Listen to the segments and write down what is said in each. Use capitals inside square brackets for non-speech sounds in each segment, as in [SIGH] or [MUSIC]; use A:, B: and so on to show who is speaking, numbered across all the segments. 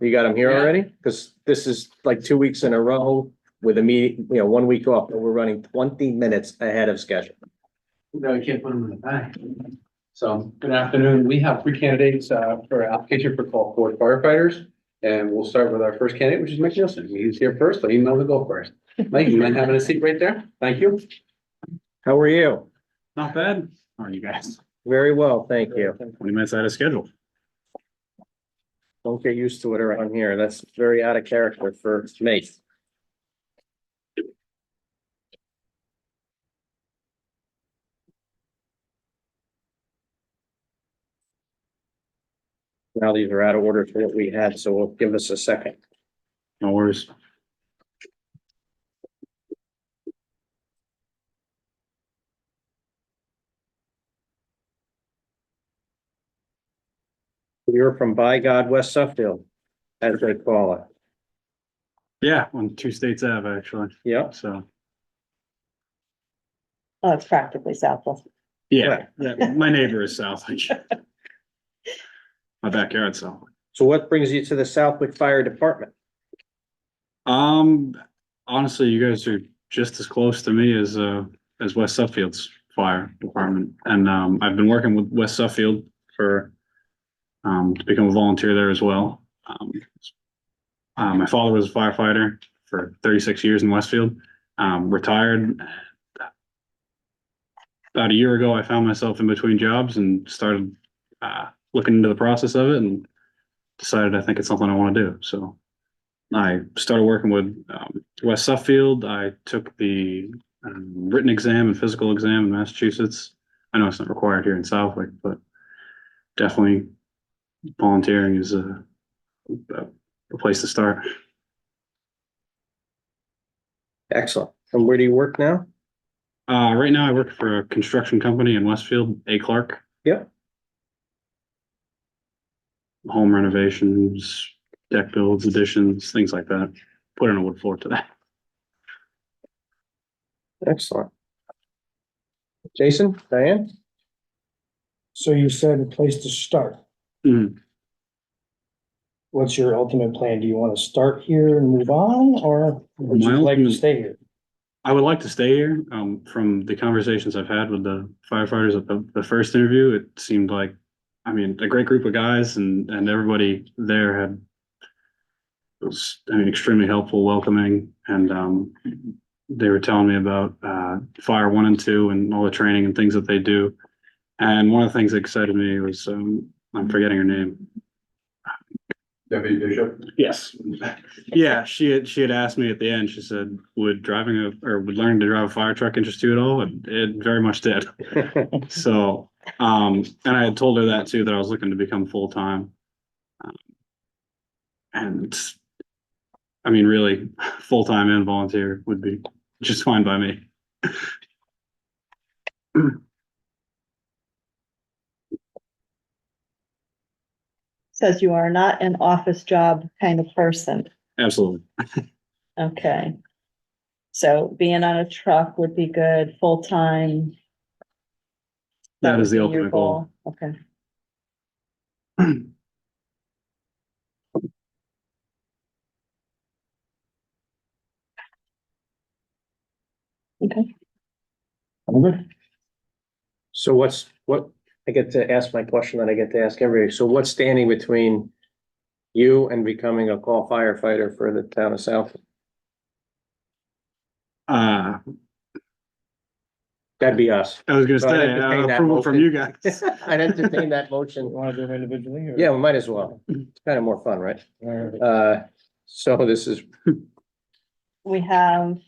A: You got them here
B: Yeah.
A: already? Because this is like two weeks in a row with a meet, you know, one week off, but we're running twenty minutes ahead of schedule.
B: No, you can't put them in the back. So, good afternoon. We have three candidates uh, for application for call for firefighters. And we'll start with our first candidate, which is Mike Nielsen. He's here first. Let him know to go first. Mike, you mind having a seat right there? Thank you.
A: How are you?
C: Not bad. How are you guys?
A: Very well, thank you.
C: Twenty minutes out of schedule.
A: Don't get used to it around here. That's very out of character for me. Now these are out of order for what we had, so we'll give us a second.
C: No worries.
A: You're from by God, West Suffield, as they call it.
C: Yeah, on two states have actually,
A: Yep.
C: so,
D: Oh, it's practically Southwest.
C: yeah, yeah, my neighbor is Southwick. [LAUGHS] My backyard, so,
A: So what brings you to the Southwick Fire Department?
C: um, honestly, you guys are just as close to me as, uh, as West Suffield's fire department. And, um, I've been working with West Suffield for, um, to become a volunteer there as well. Um, Uh, my father was a firefighter for thirty-six years in Westfield, um, retired. About a year ago, I found myself in between jobs and started, uh, looking into the process of it and decided I think it's something I want to do, so. I started working with, um, West Suffield. I took the, um, written exam and physical exam in Massachusetts. I know it's not required here in Southwick, but definitely volunteering is a, a a place to start.
A: Excellent. And where do you work now?
C: Uh, right now I work for a construction company in Westfield, A Clark.
A: Yep.
C: Home renovations, deck builds, additions, things like that. Put in a wood floor to that.
A: Excellent. Jason, Diane?
E: So you said a place to start.
C: Mm.
E: What's your ultimate plan? Do you want to start here and move on or would
C: My
E: you like to
C: ultimate-
E: stay here?
C: I would like to stay here. Um, from the conversations I've had with the firefighters at the, the first interview, it seemed like, I mean, a great group of guys and, and everybody there had was, I mean, extremely helpful, welcoming, and, um, they were telling me about, uh, fire one and two and all the training and things that they do. And one of the things that excited me was, um, I'm forgetting her name.
B: Deputy Bishop.
C: Yes. Yeah, she had, she had asked me at the end, she said, would driving a, or would learning to drive a fire truck interest you at all? And it very much [LAUGHS] did. So, um, and I had told her that too, that I was looking to become full-time. Um, And I mean, really, full-time and volunteer would be just fine by me.
D: Says you are not an office job kind of person.
C: Absolutely.
D: Okay. So being on a truck would be good, full-time.
C: That is the
D: would be your
C: ultimate goal.
D: Okay. Okay,
E: I'm good.
A: So what's, what, I get to ask my question that I get to ask everybody. So what's standing between you and becoming a call firefighter for the town of South?
C: Uh,
A: That'd be us.
C: I was gonna
A: So I'd
C: say,
A: entertain
C: uh,
A: that
C: approval from
A: motion.
C: you [LAUGHS] guys.
A: [LAUGHS] I'd entertain that
E: You
A: motion.
E: want to do them individually or?
A: Yeah, we might as well. It's kind of more fun, right?
E: Or-
A: Uh, so this is,
D: we have,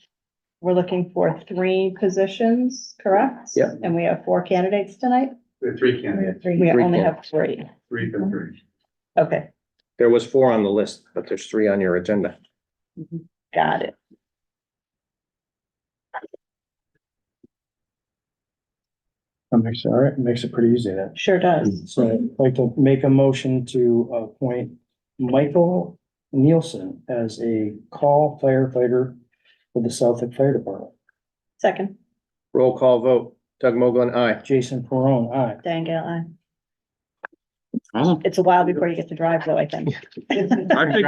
D: we're looking for three positions, correct?
A: Yeah.
D: And we have four candidates tonight?
B: There are three candidates,
D: We
A: Three
D: only have three.
B: three for three.
D: Okay,
A: there was four on the list, but there's three on your agenda.
D: got it.
E: That makes, all right, makes it pretty easy then.
D: Sure does.
E: So I'd like to make a motion to appoint Michael Nielsen as a call firefighter for the Southwick Fire Department.
D: Second,
A: Roll call vote. Doug Mogul, aye.
E: Jason Peron, aye.
D: Diane Gale, aye.
C: Awesome.
D: It's a while before you get to drive though, I think.
C: I picked